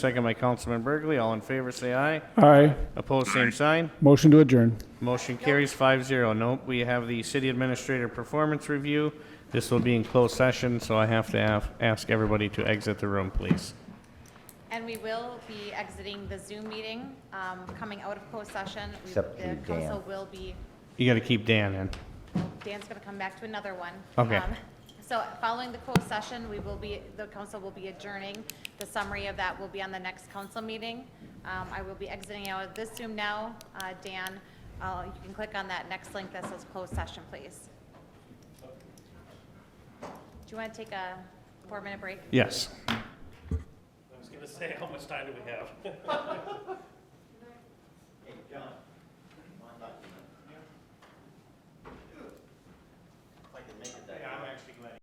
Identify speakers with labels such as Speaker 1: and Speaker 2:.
Speaker 1: Second by Councilman Burgley. All in favor, say aye.
Speaker 2: Aye.
Speaker 1: Opposed, same sign.
Speaker 2: Motion to adjourn.
Speaker 1: Motion carries five zero. Nope, we have the city administrator performance review. This will be in closed session, so I have to have, ask everybody to exit the room, please.
Speaker 3: And we will be exiting the Zoom meeting, um, coming out of closed session. We-
Speaker 4: Except
Speaker 3: The
Speaker 4: you,
Speaker 3: council
Speaker 4: Dan.
Speaker 3: will be,
Speaker 1: You gotta keep Dan in.
Speaker 3: Dan's going to come back to another one.
Speaker 1: Okay.
Speaker 3: Um, So following the closed session, we will be, the council will be adjourning. The summary of that will be on the next council meeting. Um, I will be exiting out of this Zoom now. Uh, Dan, uh, you can click on that next link that says closed session, please. Do you want to take a four-minute break?
Speaker 1: Yes.
Speaker 5: I was gonna say, how much time do we have?
Speaker 4: Hey, John.